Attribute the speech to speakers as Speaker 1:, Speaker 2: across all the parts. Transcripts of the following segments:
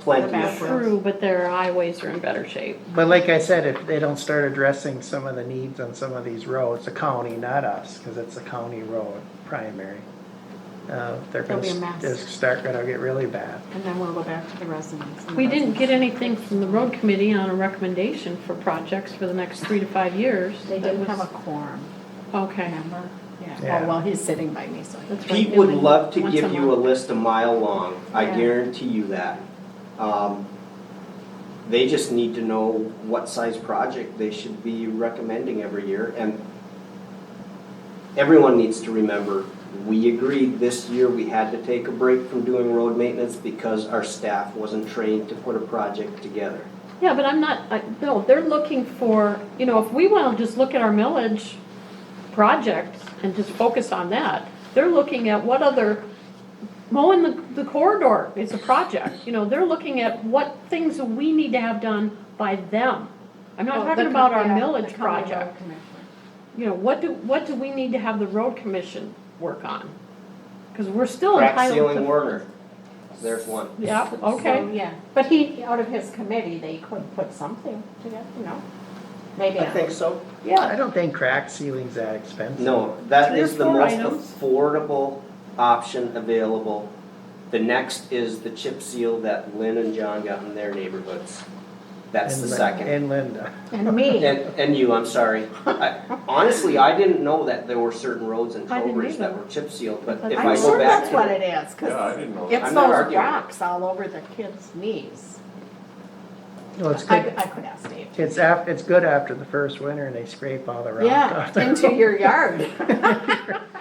Speaker 1: plenty
Speaker 2: That's
Speaker 1: of room.
Speaker 2: true, but their highways are in better shape.
Speaker 3: But like I said, if they don't start addressing some of the needs on some of these roads, the county, not us, because it's a county road primary. Uh, they're
Speaker 4: It'll
Speaker 3: gonna,
Speaker 4: be a mess.
Speaker 3: they're start gonna get really bad.
Speaker 4: And then we'll go back to the residents. and the
Speaker 2: We didn't get anything from the road committee on a recommendation for projects for the next three to five years.
Speaker 4: residents. They
Speaker 2: That
Speaker 4: didn't have
Speaker 2: was-
Speaker 4: a quorum,
Speaker 2: Okay,
Speaker 4: remember? Yeah,
Speaker 3: Yeah.
Speaker 4: oh, well, he's sitting by me, so.
Speaker 2: that's right.
Speaker 1: Pete
Speaker 2: they
Speaker 1: would
Speaker 2: went
Speaker 1: love to
Speaker 2: once
Speaker 1: give you a
Speaker 2: month.
Speaker 1: list a mile long, I
Speaker 4: Yeah.
Speaker 1: guarantee you that. Um, They just need to know what size project they should be recommending every year, and everyone needs to remember, we agreed this year we had to take a break from doing road maintenance because our staff wasn't trained to put a project together.
Speaker 2: Yeah, but I'm not, I- no, they're looking for, you know, if we want to just look at our millage project and just focus on that, they're looking at what other, mowing the the corridor is a project, you know, they're looking at what things we need to have done by them. I'm
Speaker 4: Oh,
Speaker 2: not talking about our
Speaker 4: uh,
Speaker 2: millage project. you know, what do, what do we need to have the road commission work on? Because we're still
Speaker 1: Crack
Speaker 2: entitled to.
Speaker 1: ceiling Werner, there's one.
Speaker 2: Yeah,
Speaker 4: So,
Speaker 2: okay,
Speaker 4: Yeah, but he, out of his committee, they could put something together, no? Maybe.
Speaker 1: I think so.
Speaker 3: I
Speaker 2: yeah,
Speaker 3: don't think crack ceiling's that expensive.
Speaker 1: No, that
Speaker 2: Three or
Speaker 1: is the
Speaker 2: four
Speaker 1: most
Speaker 2: items.
Speaker 1: affordable option available. The next is the chip seal that Lynn and John got in their neighborhoods. That's
Speaker 3: And
Speaker 1: the
Speaker 3: Lin-
Speaker 1: second.
Speaker 3: And Linda.
Speaker 4: And me.
Speaker 1: And, and you, I'm sorry. I- Honestly, I didn't know that there were certain roads in
Speaker 2: I didn't
Speaker 1: Trowbridge that
Speaker 2: either.
Speaker 1: were chip sealed, but
Speaker 2: But
Speaker 1: if
Speaker 2: I'm
Speaker 1: I
Speaker 4: I'm
Speaker 1: go
Speaker 4: sure
Speaker 1: back
Speaker 4: that's what
Speaker 1: to.
Speaker 4: it is,
Speaker 5: Yeah, I
Speaker 4: because
Speaker 5: didn't know.
Speaker 4: it's
Speaker 1: I'm not
Speaker 4: those
Speaker 1: arguing.
Speaker 4: rocks all over the kids' knees.
Speaker 3: Well, it's
Speaker 4: I,
Speaker 3: good,
Speaker 4: I could ask Dave.
Speaker 3: it's af, it's good after the first winter and they scrape all the rock
Speaker 4: Yeah,
Speaker 3: off. the
Speaker 4: into
Speaker 3: road.
Speaker 4: your yard.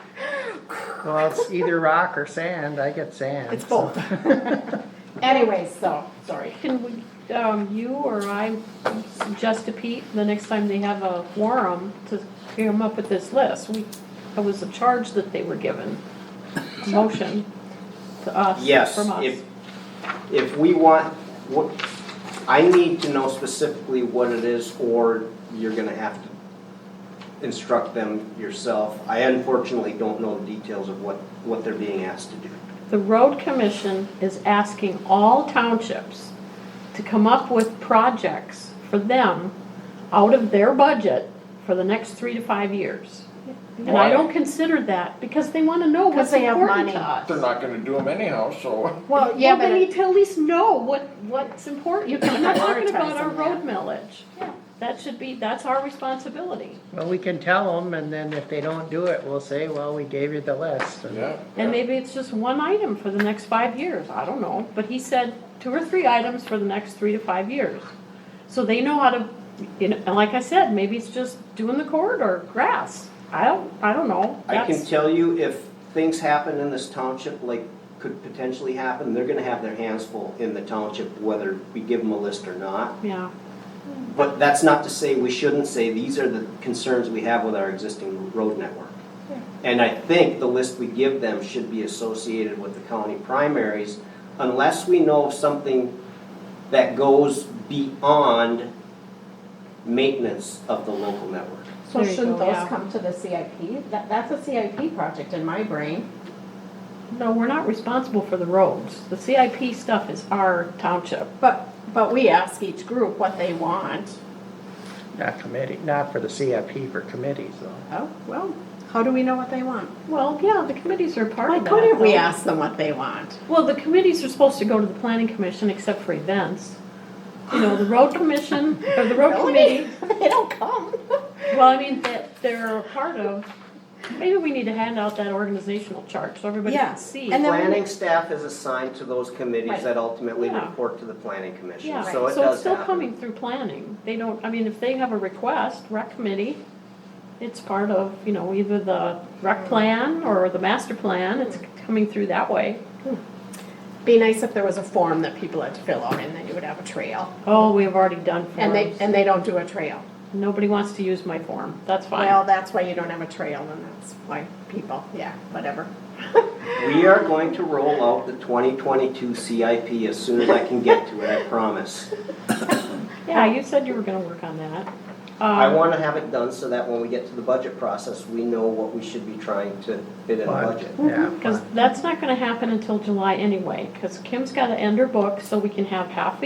Speaker 3: Well, it's either rock or sand, I get sand.
Speaker 4: It's
Speaker 3: so.
Speaker 4: both. Anyways, so, sorry.
Speaker 2: can we, um, you or I suggest to Pete, the next time they have a quorum, to come up with this list? We, it was a charge that they were given, a motion to us,
Speaker 1: Yes,
Speaker 2: from us.
Speaker 1: if, if we want, what, I need to know specifically what it is or you're gonna have to instruct them yourself. I unfortunately don't know the details of what, what they're being asked to do.
Speaker 2: The road commission is asking all townships to come up with projects for them out of their budget for the next three to five years. And I
Speaker 5: Why?
Speaker 2: don't consider that because they wanna know
Speaker 4: Because
Speaker 2: what's
Speaker 4: they have
Speaker 2: important to
Speaker 4: money.
Speaker 2: us.
Speaker 5: They're not gonna do them anyhow, so.
Speaker 4: Well, yeah,
Speaker 2: Well, they
Speaker 4: but,
Speaker 2: need to at least know what, what's important. I'm not talking about our
Speaker 4: Prioritize them,
Speaker 2: road millage.
Speaker 4: Yeah.
Speaker 2: That should be, that's our responsibility.
Speaker 3: Well, we can tell them and then if they don't do it, we'll say, well, we gave you the list. and-
Speaker 5: Yeah.
Speaker 2: And maybe it's just one item for the next five years, I don't know, but he said two or three items for the next three to five years. So they know how to, you know, and like I said, maybe it's just doing the corridor, grass, I don't, I don't know.
Speaker 1: I can
Speaker 2: That's-
Speaker 1: tell you if things happen in this township, like could potentially happen, they're gonna have their hands full in the township, whether we give them a list or not.
Speaker 2: Yeah,
Speaker 1: But that's not to say we shouldn't say, these are the concerns we have with our existing road network. And I think the list we give them should be associated with the county primaries unless we know of something that goes beyond maintenance of the local network.
Speaker 4: so
Speaker 2: There you
Speaker 4: shouldn't
Speaker 2: go,
Speaker 4: those
Speaker 2: yeah.
Speaker 4: come to the CIP? That, that's a CIP project in my brain.
Speaker 2: no, we're not responsible for the roads, the CIP stuff is our township.
Speaker 4: But, but we ask each group what they want.
Speaker 3: Not committee, not for the CIP, for committees though.
Speaker 4: Oh, well, how do we know what they want?
Speaker 2: Well, yeah, the committees are part
Speaker 4: Why
Speaker 2: of that.
Speaker 4: couldn't we
Speaker 2: though.
Speaker 4: ask them what they want?
Speaker 2: Well, the committees are supposed to go to the planning commission except for events. You know, the road commission, or the road committee.
Speaker 4: Really? They don't come.
Speaker 2: Well, I mean, that they're a part of, maybe we need to hand out that organizational chart so everybody
Speaker 4: Yeah,
Speaker 2: can see.
Speaker 4: and then-
Speaker 1: Planning staff is assigned to those committees
Speaker 4: Right.
Speaker 1: that ultimately
Speaker 2: Yeah.
Speaker 1: report to the planning commission,
Speaker 2: Yeah,
Speaker 1: so it does happen.
Speaker 2: so it's still coming through planning. They don't, I mean, if they have a request, rec committee, it's part of, you know, either the rec plan or the master plan, it's coming through that way.
Speaker 4: Be nice if there was a form that people had to fill out and then you would have a trail.
Speaker 2: Oh, we have already done
Speaker 4: And they,
Speaker 2: forms.
Speaker 4: and they don't do a trail.
Speaker 2: Nobody wants to use my form, that's
Speaker 4: Well,
Speaker 2: fine.
Speaker 4: that's why you don't have a trail and that's why people, yeah, whatever.
Speaker 1: We are going to roll out the 2022 CIP as soon as I can get to it, I promise.
Speaker 2: Yeah, you said you were gonna work on that.
Speaker 1: I
Speaker 2: Um,
Speaker 1: want to have it done so that when we get to the budget process, we know what we should be trying to fit in the
Speaker 3: Fine.
Speaker 1: budget.
Speaker 3: Yeah,
Speaker 2: Because that's not gonna happen until July anyway, because Kim's gotta end her book so we can have half a